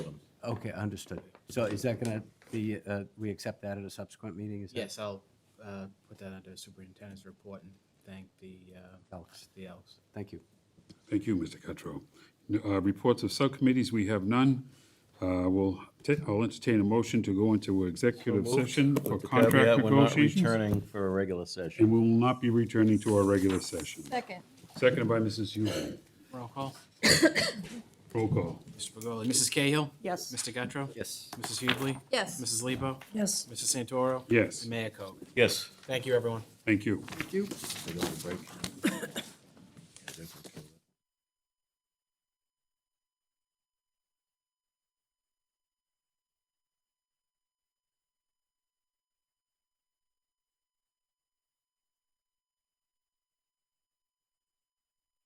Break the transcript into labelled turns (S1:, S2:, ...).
S1: Okay, understood. So is that going to be, uh, we accept that at a subsequent meeting? Is that-
S2: Yes, I'll uh, put that under superintendent's report and thank the, uh,
S1: Elks.
S2: the elves.
S1: Thank you.
S3: Thank you, Mr. Cuttrell. Uh, Reports of subcommittees, we have none. Uh, We'll, ta- I'll entertain a motion to go into executive session for
S4: With the caveat,
S3: contract
S4: we're not
S3: negotiations.
S4: Returning for a regular session.
S3: And we will not be returning to our regular session.
S5: Second.
S3: Seconded by Mrs. Hubley.
S2: Roll call.
S3: Roll call.
S2: Mr. Pagoli, Mrs. Cahill?
S5: Yes.
S2: Mr. Guttrow?
S1: Yes.
S2: Mrs. Hubley?
S5: Yes.
S2: Mrs. Lebo?
S5: Yes.
S2: Mr. Santoro?
S3: Yes.
S2: And Mayor Koch.
S4: Yes.
S2: Thank you, everyone.
S3: Thank you.
S1: Thank you.
S4: Take a little break.